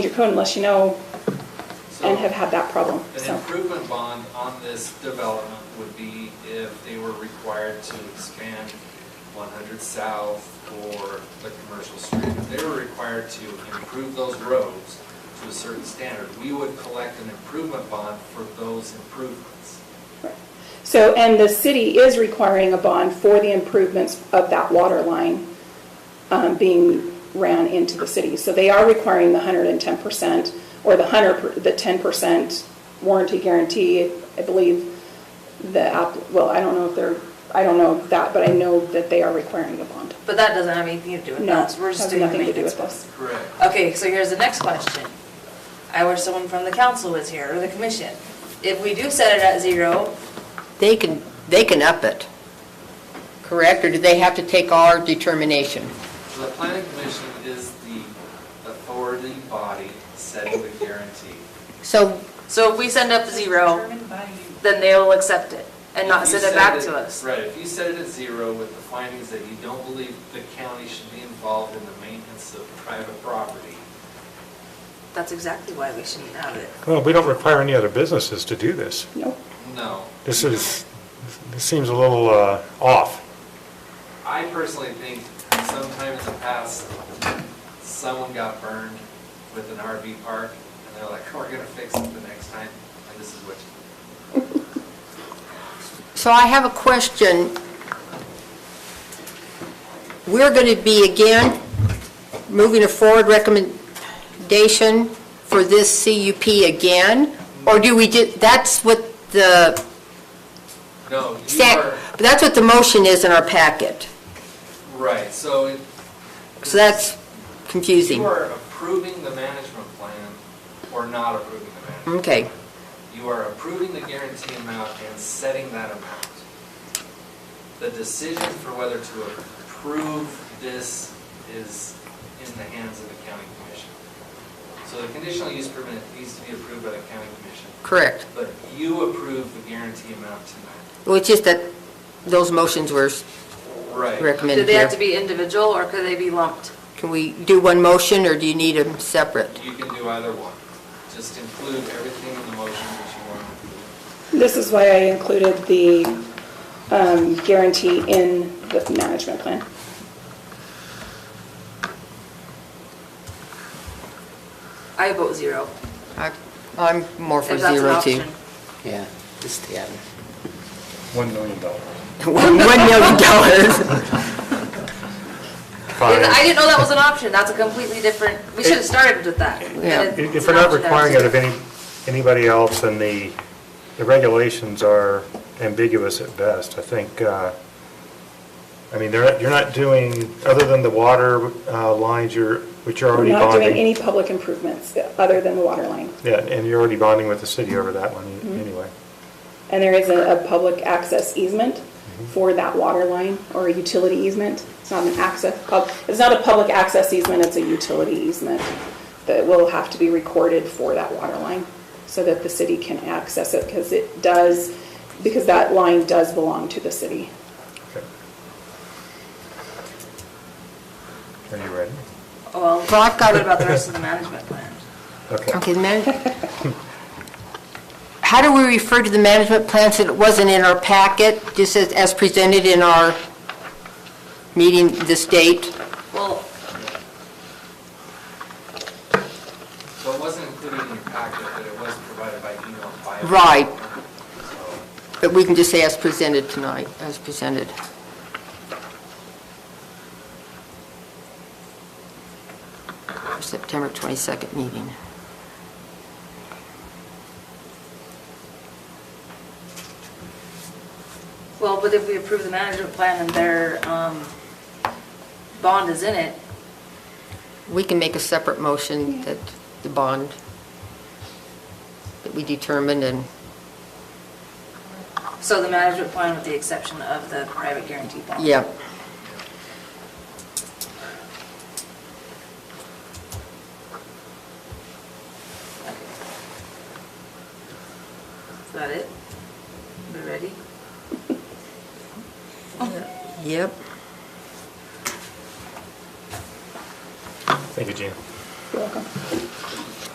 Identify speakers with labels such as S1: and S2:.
S1: code unless you know
S2: So-
S1: and have had that problem,
S2: An
S1: so.
S2: improvement bond on this development would be if they were required to expand 100 South or the commercial street. If they were required to improve those roads to a certain standard, we would collect an improvement bond for those improvements.
S1: So, and the city is requiring a bond for the improvements of that water line um, being ran into the city. So they are requiring the 110% or the 100, the 10% warranty guarantee, I believe. The, app- well, I don't know if they're, I don't know that, but I know that they are requiring a bond.
S3: But that doesn't have anything to do with
S1: No,
S3: us. We're just
S1: has
S3: doing the
S1: nothing to do
S3: maintenance
S1: with
S3: one.
S1: this.
S2: Correct.
S3: Okay, so here's the next question. I wish someone from the council was here, or the commission. If we do set it at zero,
S4: They can, they can up it, correct? Or do they have to take our determination?
S2: So the planning commission is the authority body setting the guarantee.
S4: So,
S3: so if we send up zero, then they'll accept it and not
S2: If
S3: send
S2: you
S3: it back
S2: set
S3: to us.
S2: Right, if you set it at zero with the findings that you don't believe the county should be involved in the maintenance of private property,
S3: That's exactly why we shouldn't have it.
S5: Well, we don't require any other businesses to do this.
S1: Nope.
S2: no.
S5: This is, this seems a little uh, off.
S2: I personally think sometime in the past, someone got burned with an RV park, and they're like, we're gonna fix it the next time, and this is what you
S4: so I have a question. We're going to be, again, moving a forward recommendation for this CUP again? Or do we, ju- that's what the,
S2: No, you are,
S4: stack- that's what the motion is in our packet?
S2: right, so it-
S4: So that's confusing.
S2: you are approving the management plan or not approving the management plan.
S4: Okay.
S2: You are approving the guarantee amount and setting that amount. The decision for whether to approve this is in the hands of the county commission. So the conditional use permit needs to be approved by the county commission,
S4: Correct.
S2: but you approve the guarantee amount tonight.
S4: Well, it's just that those motions were
S2: Right.
S4: recommended
S3: Do
S4: here.
S3: they have to be individual or could they be lumped?
S4: Can we do one motion, or do you need them separate?
S2: You can do either one. Just include everything in the motion that you want to approve.
S1: This is why I included the um, guarantee in the management plan.
S3: I vote zero.
S4: I- I'm more for
S3: if that's an
S4: zero, too.
S3: option.
S4: Yeah, just, yeah.
S5: One million dollars.
S4: One one million dollars.
S3: Yeah, I
S5: Fine.
S3: didn't know that was an option. That's a completely different, we should have started with that. but
S4: Yeah.
S3: it's
S5: If
S3: an
S5: if we're not
S3: option that was
S5: requiring it of
S3: zero.
S5: any, anybody else, then the, the regulations are ambiguous at best. I think, uh, I mean, they're, you're not doing, other than the water uh, lines, you're, which you're
S1: We're
S5: already
S1: not doing
S5: bonding.
S1: any public improvements other than the water line.
S5: Yeah, and you're already bonding with the city over that one
S1: Mm-hmm.
S5: anyway.
S1: And there is a, a public access easement for that water line or a utility easement. It's not an access, pub- it's not a public access easement, it's a utility easement that will have to be recorded for that water line so that the city can access it because it does, because that line does belong to the city.
S5: Okay. Are you ready?
S3: Well,
S4: Well, I've got
S3: what
S4: a-
S3: about the rest of the management plan?
S5: Okay.
S4: Okay, the man, how do we refer to the management plan since it wasn't in our packet, just as, as presented in our meeting this date?
S3: Well,
S2: What wasn't included in your packet, but it was provided by email by.
S4: Right.
S2: So-
S4: But we can just say as presented tonight, as presented. Our September 22nd meeting.
S3: well, but if we approve the management plan and their um, bond is in it,
S4: We can make a separate motion that the bond that we determined and,
S3: so the management plan with the exception of the private guarantee bond.
S4: yeah.
S3: Okay. Is that it? We ready?
S4: Yep.
S5: Thank you, Gina.
S1: You're welcome.